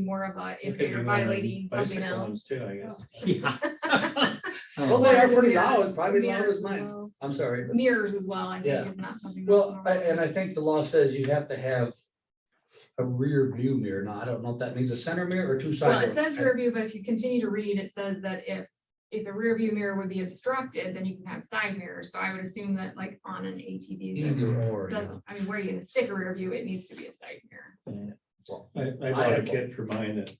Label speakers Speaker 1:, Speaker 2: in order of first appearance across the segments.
Speaker 1: more of a, if
Speaker 2: Could be
Speaker 1: you're
Speaker 2: one
Speaker 1: violating
Speaker 2: of them
Speaker 1: something
Speaker 2: bicycle
Speaker 1: else.
Speaker 2: ones Too, I guess.
Speaker 3: Yeah.
Speaker 4: Well, they are pretty
Speaker 1: Yeah.
Speaker 4: loud, private loud
Speaker 1: Mirrors
Speaker 4: is
Speaker 1: as
Speaker 4: nice.
Speaker 1: well.
Speaker 4: I'm sorry. but-
Speaker 1: Mirrors as well, I think
Speaker 4: Yeah.
Speaker 1: is not something. that's
Speaker 4: Well, I-
Speaker 1: normal.
Speaker 4: and I think the law says you have to have a rear view mirror. Now, I don't know if that means a center mirror or two side.
Speaker 1: Well, it
Speaker 4: ones.
Speaker 1: says rear view, but if you continue to read, it says that if, if the rear view mirror would be obstructed, then you can have side mirrors. So I would assume that like on an ATV
Speaker 4: Either or.
Speaker 1: that
Speaker 4: you know.
Speaker 1: doesn't, I mean, where are you gonna stick a rear view? It needs to be a side mirror.
Speaker 2: I, I bought a kit for mine that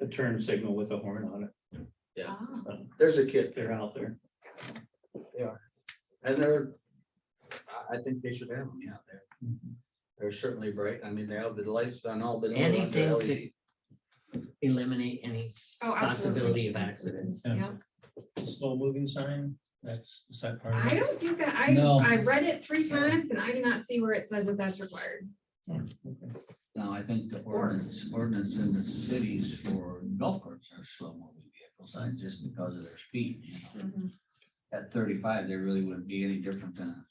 Speaker 2: a turn signal with a horn on it.
Speaker 4: Yeah.
Speaker 1: Ah,
Speaker 4: There's a kid
Speaker 2: They're out there.
Speaker 4: and they're, I, I think they should have them out there. They're certainly bright. I mean, they have the lights on all the. E new ones are
Speaker 3: Anything to-
Speaker 4: LED.
Speaker 3: Eliminate any,
Speaker 1: Oh, absolutely.
Speaker 3: Possibility of accidents.
Speaker 1: Yeah.
Speaker 2: Slow moving sign, that's, is that part of
Speaker 1: I
Speaker 2: it?
Speaker 1: don't think that,
Speaker 4: No.
Speaker 1: I, I read it three times and I do not see where it says that that's required.
Speaker 2: Oh,
Speaker 5: Now, I think the ordinance, ordinance in the cities for golf carts are slow moving vehicles, not just because of their speed. you know.
Speaker 1: Mm-hmm.
Speaker 5: At thirty-five, they really wouldn't be any different than,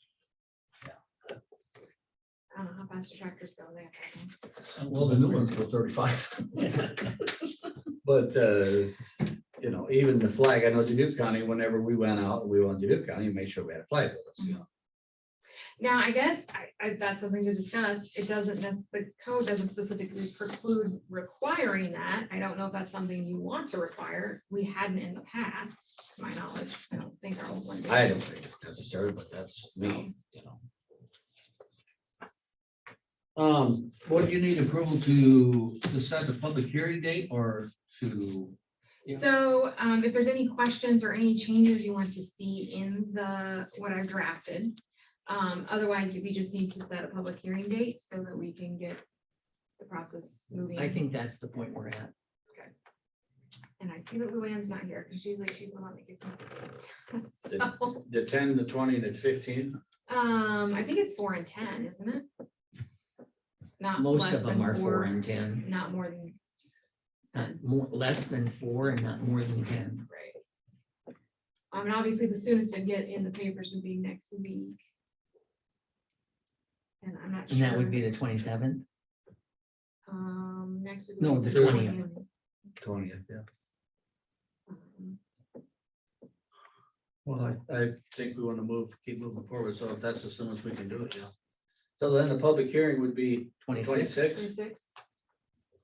Speaker 1: I don't know how fast the tractors go there.
Speaker 4: Well, the new ones were thirty-five. But, uh, you know, even the flag, I know Dubuque County, whenever we went out, we went to Dubuque County, we made sure we had a flag with us, you know.
Speaker 1: Now, I guess I, I, that's something to discuss. It doesn't, nec- the code doesn't specifically preclude requiring that. I don't know if that's something you want to require. We hadn't in the past, to my knowledge. I don't think our old one did.
Speaker 4: I don't think it's necessary, but that's me, you know. Um,
Speaker 5: what do you need approval to decide the public hearing date or to?
Speaker 3: Yeah.
Speaker 1: So um, if there's any questions or any changes you want to see in the, what I've drafted. Um, otherwise, we just need to set a public hearing date so that we can get the process moving.
Speaker 3: I think that's the point we're at.
Speaker 1: And I see that Luann's not here because usually she's the one that gives me. the
Speaker 4: Did-
Speaker 1: date. So,
Speaker 4: the ten, the twenty, and the fifteen,
Speaker 1: Um, I think it's four and ten, isn't it? Not
Speaker 3: Most
Speaker 1: less
Speaker 3: of them
Speaker 1: than
Speaker 3: are four and ten,
Speaker 1: Not more than,
Speaker 3: not more, less than four and not more than ten.
Speaker 1: right. Um, and obviously the soonest I'd get in the papers would be next week. And I'm not
Speaker 3: And that would
Speaker 1: sure,
Speaker 3: be the twenty-seventh.
Speaker 1: um, next week. would
Speaker 3: No,
Speaker 1: be
Speaker 3: the 20th.
Speaker 4: twentieth, yeah.
Speaker 1: Um,
Speaker 4: Well, I, I think we want to move, keep moving forward, so if that's as soon as we can do it, yeah. So then the public hearing would be
Speaker 3: Twenty-sixth,
Speaker 4: twenty-six,
Speaker 1: 26th.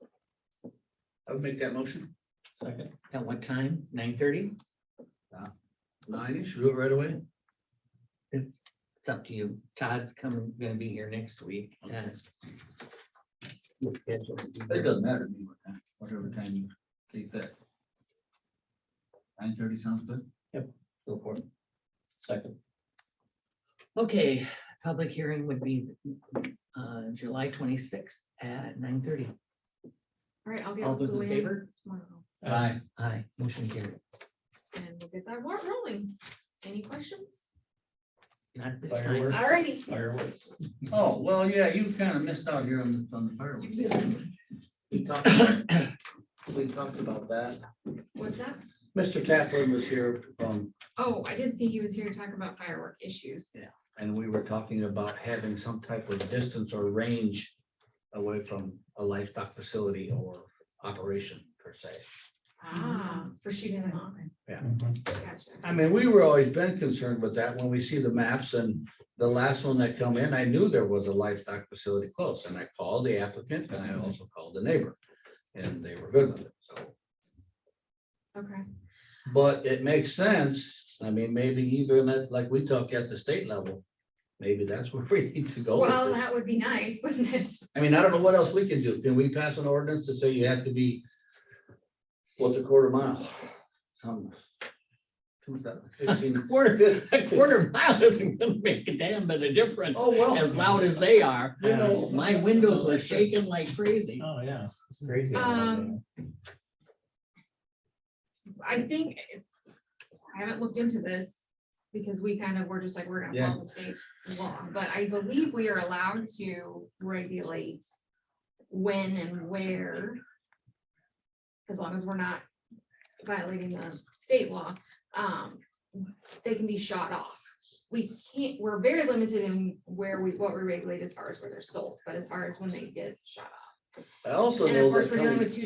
Speaker 4: I would make that motion,
Speaker 2: Second.
Speaker 3: at what time? Nine thirty?
Speaker 4: nine-ish, do it right away.
Speaker 3: It's, it's up to you. Todd's coming, gonna be here next week. and the schedule will be
Speaker 5: It
Speaker 3: there.
Speaker 5: doesn't matter to me what time, whatever time you take that. Nine thirty sounds good.
Speaker 2: Go for it. Second.
Speaker 3: Okay, public hearing would be uh, July twenty-sixth at nine thirty.
Speaker 1: All right, I'll get.
Speaker 3: All
Speaker 1: with
Speaker 3: those in
Speaker 1: Luann
Speaker 3: favor?
Speaker 1: Tomorrow,
Speaker 4: Aye.
Speaker 3: Aye, motion carried.
Speaker 1: and we'll get that warrant rolling. Any questions?
Speaker 3: Not this time.
Speaker 2: Fireworks.
Speaker 1: All righty.
Speaker 2: Fireworks.
Speaker 5: Oh, well, yeah, you kind of missed out here on the, on the fireworks.
Speaker 4: We talked about- we talked about that.
Speaker 1: What's that?
Speaker 4: Mr. Taplin was here, um,
Speaker 1: Oh, I did see he was here to talk about firework issues.
Speaker 4: and we were talking about having some type of distance or range away from a livestock facility or operation per se.
Speaker 1: Ah, for shooting them off.
Speaker 2: Mm-hmm.
Speaker 1: Gotcha.
Speaker 4: I mean, we were always been concerned with that when we see the maps and the last one that come in, I knew there was a livestock facility close and I called the applicant and I also called the neighbor. And they were good with it, so.
Speaker 1: Okay.
Speaker 4: But it makes sense, I mean, maybe even at, like we talk at the state level, maybe that's where we need to go
Speaker 1: Well,
Speaker 4: with this.
Speaker 1: that would be nice, wouldn't it?
Speaker 4: I mean, I don't know what else we can do, can we pass an ordinance to say you have to be, what's a quarter mile? Some. two thousand fifteen.
Speaker 3: Quarter, a quarter mile isn't gonna make a damn bit of difference,
Speaker 4: Oh, well.
Speaker 3: as loud as they are.
Speaker 4: You know.
Speaker 3: My windows were shaking like crazy.
Speaker 2: Oh, yeah, it's crazy. how
Speaker 1: Um, I think, it- I haven't looked into this because we kind of were just like, we're gonna follow the state law, but I believe we are allowed to regulate when and where, as long as we're not violating the state law, um, they can be shot off. We can't, we're very limited in where we, what we regulate as far as where they're sold, but as far as when they get shot off.
Speaker 4: I also
Speaker 1: And of
Speaker 4: know
Speaker 1: course,
Speaker 4: that
Speaker 1: we're dealing
Speaker 4: coming
Speaker 1: with two